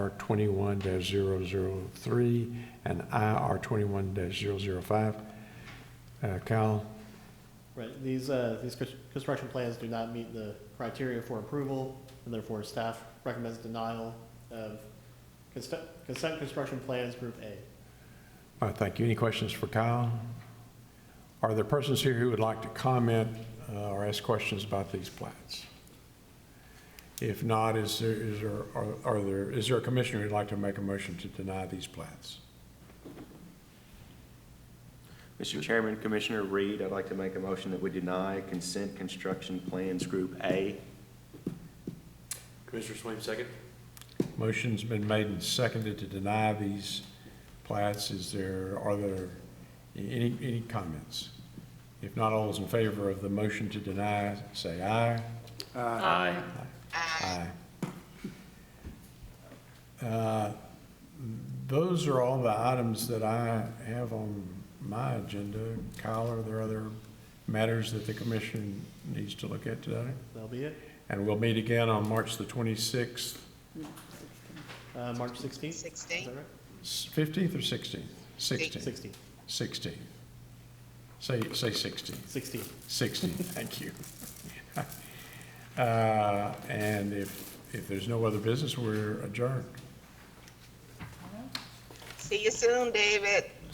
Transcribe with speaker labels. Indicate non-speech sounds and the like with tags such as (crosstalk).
Speaker 1: R twenty-one 3 and I R twenty-one 5 Uh, Kyle,
Speaker 2: Right, these, uh, these cons- construction plans do not meet the criteria for approval, and therefore staff recommends denial of consent, consent construction plans group A.
Speaker 1: uh, thank you. Any questions for Kyle? Are there persons here who would like to comment, uh, or ask questions about these plats? If not, is there, is there, are- are there, is there a commissioner who'd like to make a motion to deny these plats?
Speaker 3: Mr. Chairman, Commissioner Reed, I'd like to make a motion that we deny consent construction plans Group A.
Speaker 4: Commissioner Swaim, second.
Speaker 1: Motion's been made and seconded to deny these plats. Is there, are there any, any comments? If not, all those in favor of the motion to deny, say aye.
Speaker 4: Aye.
Speaker 1: Aye. Uh, Those are all the items that I have on my agenda. Kyle, are there other matters that the commission needs to look at today?
Speaker 2: That'll be it.
Speaker 1: And we'll meet again on March the 26th,
Speaker 2: Uh, March sixteenth? Is
Speaker 5: 16.
Speaker 2: that right?
Speaker 1: 15th or 16th? 16th.
Speaker 2: Sixteenth.
Speaker 1: 16. Say, say 16.
Speaker 2: Sixteenth.
Speaker 1: 16, thank you. (laughs) Uh, And if, if there's no other business, we're adjourned.
Speaker 5: See you soon, David.